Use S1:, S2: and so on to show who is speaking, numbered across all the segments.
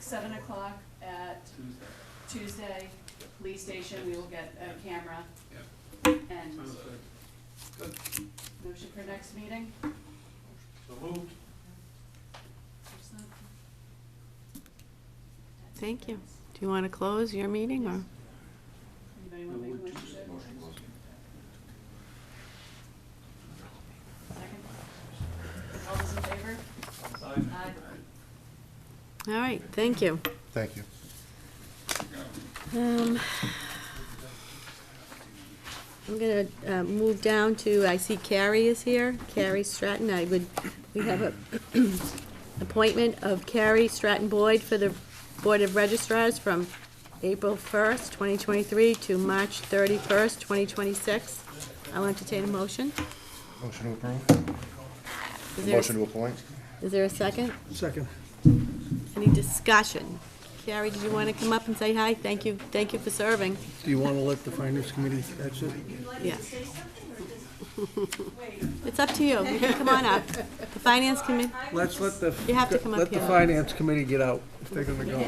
S1: seven o'clock at
S2: Tuesday.
S1: Tuesday, police station, we will get a camera. And
S2: Sounds good.
S1: motion for next meeting?
S2: So moved.
S3: Thank you. Do you want to close your meeting or?
S1: Anybody want to make a motion? Second? All those in favor? Aye.
S3: All right, thank you.
S4: Thank you.
S3: Um, I'm going to move down to, I see Carrie is here, Carrie Stratton. I would, we have a appointment of Carrie Stratton Boyd for the Board of Registrars from April 1st, 2023 to March 31st, 2026. I'll entertain a motion.
S4: Motion to approve?
S3: Is there a-
S4: Motion to appoint?
S3: Is there a second?
S5: Second.
S3: Any discussion? Carrie, did you want to come up and say hi? Thank you, thank you for serving.
S5: Do you want to let the finance committee exit?
S3: Yes. It's up to you. You can come on up. The finance committee,
S5: Let's let the.
S3: You have to come up
S5: Let the
S3: here.
S5: finance committee get out if they're gonna go.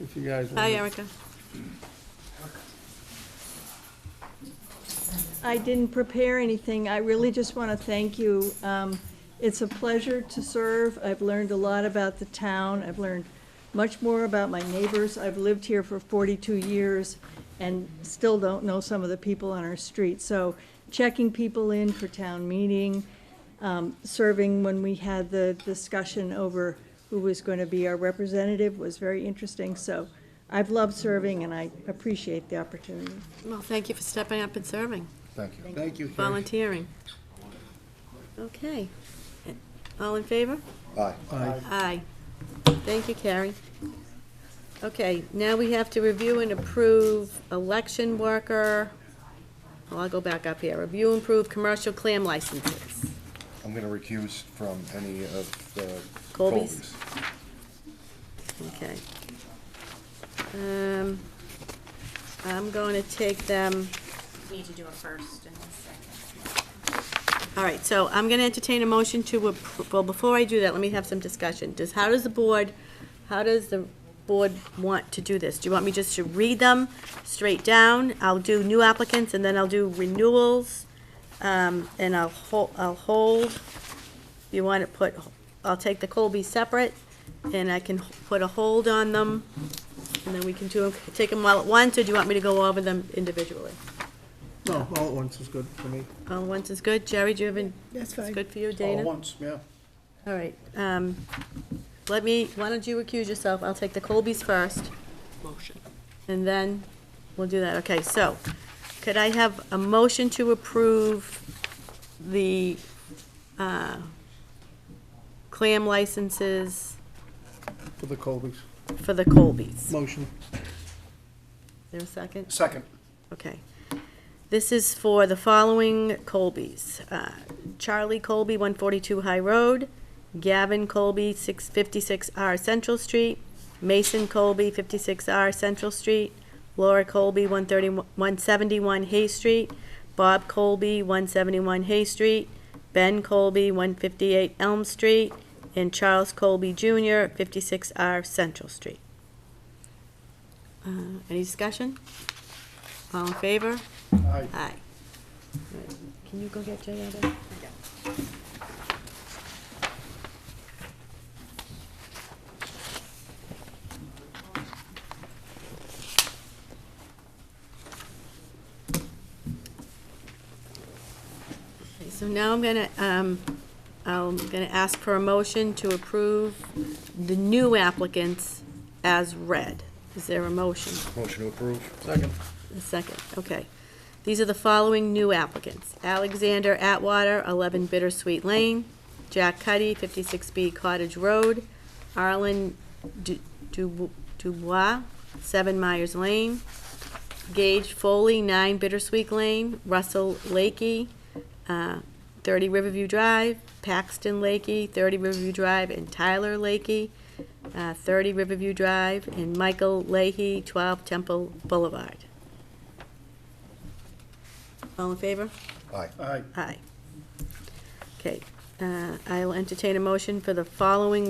S5: If you guys.
S3: hi
S5: wanna-
S3: Erica.
S6: I didn't prepare anything. I really just want to thank you. Um, It's a pleasure to serve. I've learned a lot about the town. I've learned much more about my neighbors. I've lived here for 42 years and still don't know some of the people on our street. So checking people in for town meeting, um, serving when we had the discussion over who was going to be our representative was very interesting. So I've loved serving and I appreciate the opportunity.
S3: Well, thank you for stepping up and serving,
S4: Thank you.
S5: Thank you, Carrie.
S3: volunteering. Okay. All in favor?
S4: Aye.
S5: Aye.
S3: Aye. Thank you, Carrie. Okay, now we have to review and approve election worker. Well, I'll go back up here. Review and approve commercial clam licenses.
S4: I'm gonna recuse from any of the
S3: Colby's?
S4: Colbys.
S3: Okay. Um, I'm going to take them,
S7: need to do a first and a second.
S3: all right, so I'm going to entertain a motion to, appro- well, before I do that, let me have some discussion. Does, how does the board, how does the board want to do this? Do you want me just to read them straight down? I'll do new applicants, and then I'll do renewals, um, and I'll hold, I'll hold. You want to put, I'll take the Colby separate, and I can put a hold on them, and then we can do, take them all at once, or do you want me to go over them individually?
S5: No, all at once is good for me.
S3: All at once is good. Jerry, do you have any?
S5: That's
S3: It's good for you, Dana?
S5: once, yeah.
S3: All right. um, Let me, why don't you recuse yourself? I'll take the Colbys first. Motion. And then we'll do that. Okay, so could I have a motion to approve the uh, clam licenses
S5: For the Colbys.
S3: for the Colbys?
S5: Motion.
S3: There a second?
S5: Second.
S3: Okay. This is for the following Colbys. Uh, Charlie Colby, 142 High Road. Gavin Colby, 656R Central Street. Mason Colby, 56R Central Street. Laura Colby, 131 171 Hay Street. Bob Colby, 171 Hay Street. Ben Colby, 158 Elm Street. And Charles Colby Jr., 56R Central Street. Uh, Any discussion? All in favor?
S5: Aye.
S3: Aye. Can you go get Jay out of there? Okay, So now I'm gonna, um, I'm gonna ask for a motion to approve the new applicants as read. Is there a motion?
S4: Motion to approve?
S5: Second.
S3: A second, okay. These are the following new applicants. Alexander Atwater, 11 Bittersweet Lane. Jack Cuddy, 56B Cottage Road. Arlen Du- Du- Dubois, 7 Myers Lane. Gage Foley, 9 Bittersweet Lane. Russell Lakey, uh, 30 Riverview Drive. Paxton Lakey, 30 Riverview Drive. And Tyler Lakey, uh, 30 Riverview Drive. And Michael Leahy, 12 Temple Boulevard. All in favor?
S4: Aye.
S5: Aye.
S3: Aye. Okay, uh, I'll entertain a motion for the following